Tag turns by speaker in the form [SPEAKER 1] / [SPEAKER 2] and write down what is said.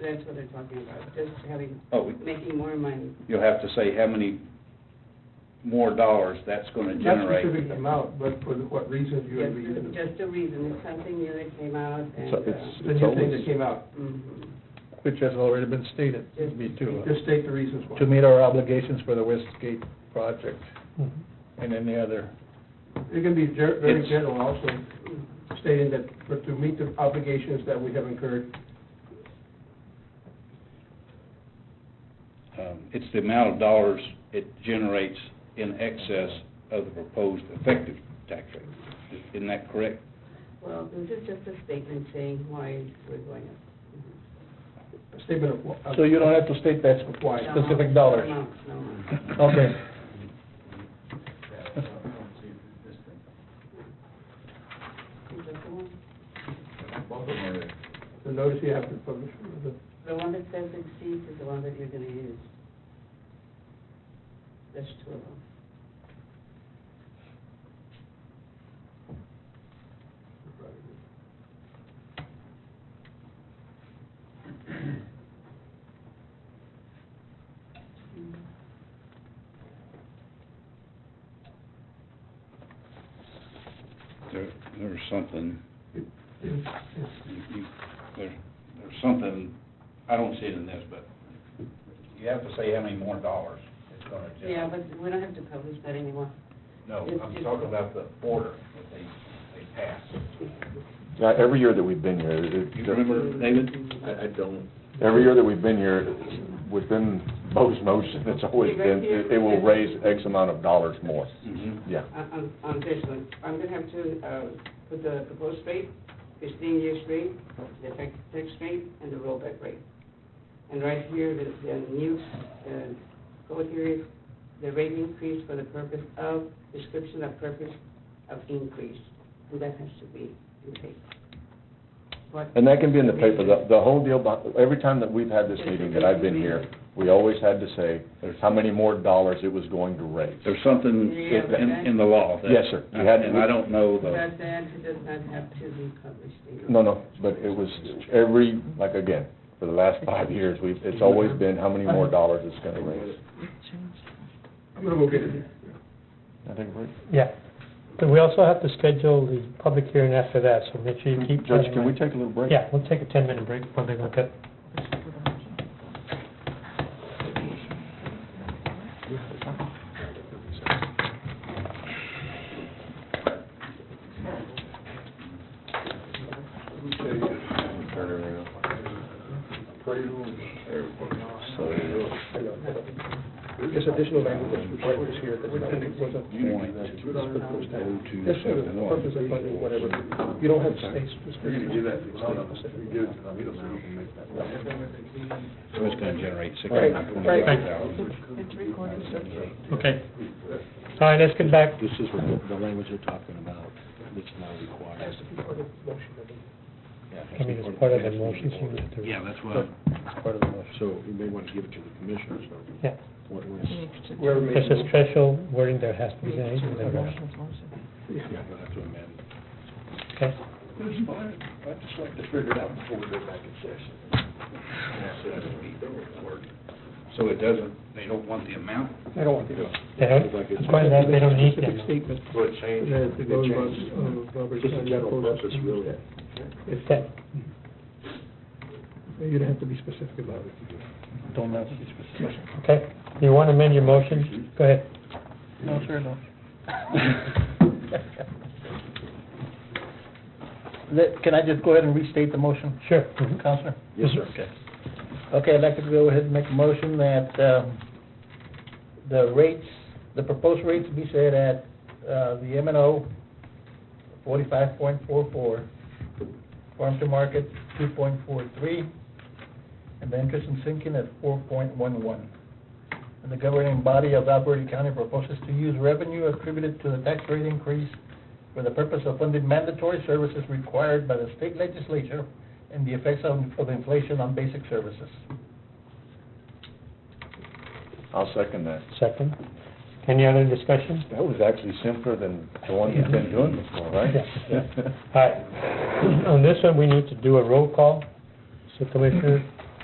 [SPEAKER 1] that's what they're talking about, just having,
[SPEAKER 2] Oh, we-
[SPEAKER 1] making more money.
[SPEAKER 2] you'll have to say how many more dollars that's gonna
[SPEAKER 3] Not
[SPEAKER 2] generate.
[SPEAKER 3] specific amount, but for the- what reason you would be
[SPEAKER 1] Just, just a reason, it's something new that came out and,
[SPEAKER 4] It's, it's,
[SPEAKER 1] uh,
[SPEAKER 3] The
[SPEAKER 4] it's
[SPEAKER 3] new thing that
[SPEAKER 4] always,
[SPEAKER 3] came out,
[SPEAKER 1] mhm.
[SPEAKER 4] which has already been stated, to be to, uh,
[SPEAKER 3] just state the reasons why.
[SPEAKER 4] to meet our obligations for the Westgate project and any other.
[SPEAKER 3] It can be ger- very
[SPEAKER 2] It's-
[SPEAKER 3] general also, stating that, but to meet the obligations that we have incurred.
[SPEAKER 2] Um, It's the amount of dollars it generates in excess of the proposed effective tax rate. Isn't that correct?
[SPEAKER 1] well, this is just a statement saying why we're going up.
[SPEAKER 3] A statement of. wh- of-
[SPEAKER 4] So you don't have to state that
[SPEAKER 3] Why?
[SPEAKER 4] specific dollars.
[SPEAKER 1] No, no, no.
[SPEAKER 4] Okay.
[SPEAKER 1] Is that the one?
[SPEAKER 3] The notice you have to publish, the
[SPEAKER 1] The one that says exceeds is the one that you're gonna use. There's two of them.
[SPEAKER 2] There, there's something,
[SPEAKER 3] It's-
[SPEAKER 2] you- you- there, there's something, I don't see it in this, but you have to say how many more dollars it's gonna generate.
[SPEAKER 1] Yeah, but we don't have to publish that anymore.
[SPEAKER 2] No,
[SPEAKER 1] It's
[SPEAKER 2] I'm
[SPEAKER 1] just-
[SPEAKER 2] talking about the order that they, they passed.
[SPEAKER 5] Yeah, every year that we've been here, it-
[SPEAKER 2] You remember, David?
[SPEAKER 6] I, I don't,
[SPEAKER 5] every year that we've been here, within Bo's motion, it's always been, it it will raise X amount of dollars more.
[SPEAKER 2] Mm-hmm.
[SPEAKER 5] Yeah.
[SPEAKER 1] On, on- on this one, I'm gonna have to, uh, put the proposed rate, fifteen years rate, the effective tax rate, and the rollback rate. And right here, the, the new, uh, code here is the rate increase for the purpose of, description of purpose of increase, and that has to be in paper. What-
[SPEAKER 5] And that can be in the paper, the, the whole deal, about- every time that we've had this meeting that I've been here, we always had to say how many more dollars it was going to raise.
[SPEAKER 2] There's something
[SPEAKER 1] Yeah, but
[SPEAKER 2] in,
[SPEAKER 1] that-
[SPEAKER 2] in the law that.
[SPEAKER 5] Yes, sir. You had-
[SPEAKER 2] And I don't know the,
[SPEAKER 1] But that does not have to be published in.
[SPEAKER 5] No, no, but it was every, like again, for the last five years, we've, it's always been how many more dollars it's gonna raise.
[SPEAKER 3] I'm gonna go get it.
[SPEAKER 5] I think we're-
[SPEAKER 7] Yeah, but we also have to schedule the public hearing after that, so make sure you keep.
[SPEAKER 5] Judge, can we take a little break?
[SPEAKER 7] Yeah, we'll take a ten-minute break before they look at.
[SPEAKER 3] There's additional language that's required here that wasn't.
[SPEAKER 2] Point
[SPEAKER 3] That's sort of the purpose of funding, whatever. You don't have to state specific.
[SPEAKER 2] so it's gonna generate six
[SPEAKER 3] Right,
[SPEAKER 2] hundred
[SPEAKER 3] right.
[SPEAKER 2] and twenty-five thousand.
[SPEAKER 7] Okay. All right, let's get back,
[SPEAKER 6] this is the, the language you're talking about, that's now required.
[SPEAKER 7] I mean, it's part of the motion, so we have to-
[SPEAKER 6] Yeah, that's what,
[SPEAKER 7] It's part of the motion.
[SPEAKER 6] so you may want to give it to the commissioners.
[SPEAKER 7] Yeah.
[SPEAKER 6] What was,
[SPEAKER 3] Whoever made
[SPEAKER 7] There's
[SPEAKER 3] the
[SPEAKER 7] a special wording there has to be made, and then, uh,
[SPEAKER 6] yeah, you'll have to amend.
[SPEAKER 7] okay?
[SPEAKER 6] That's fine, I'd just like to figure it out before we go back in session.
[SPEAKER 2] So it doesn't, they don't want the amount?
[SPEAKER 3] I don't want to do it.
[SPEAKER 7] They don't, according to that, they don't need
[SPEAKER 3] Specific
[SPEAKER 7] them.
[SPEAKER 3] statement
[SPEAKER 6] So it changed,
[SPEAKER 3] that the
[SPEAKER 6] it
[SPEAKER 3] government
[SPEAKER 6] changes.
[SPEAKER 3] of Robert's.
[SPEAKER 6] Just a general purpose, really.
[SPEAKER 3] It's
[SPEAKER 7] That-
[SPEAKER 3] You don't have to be specific about it.
[SPEAKER 4] Don't have to be specific.
[SPEAKER 7] Okay, you want to amend your motion? Go ahead.
[SPEAKER 4] No, sir, no. Let- Can I just go ahead and restate the motion?
[SPEAKER 7] Sure.
[SPEAKER 4] Counselor?
[SPEAKER 6] Yes, sir.
[SPEAKER 4] Okay. Okay, I'd like to go ahead and make a motion that um, the rates, the proposed rates be set at uh, the M and O forty-five point four-four, farm to market two point four-three, and the interest and sinking at four point one-one. And the governing body of Alberta County proposes to use revenue attributed to the tax rate increase for the purpose of funding mandatory services required by the state legislature and the effects of, of inflation on basic services.
[SPEAKER 5] I'll second that.
[SPEAKER 7] Second. Any other discussion?
[SPEAKER 5] That was actually simpler than the one you've been doing before, right?
[SPEAKER 7] All right, on this one, we need to do a roll call. So Commissioner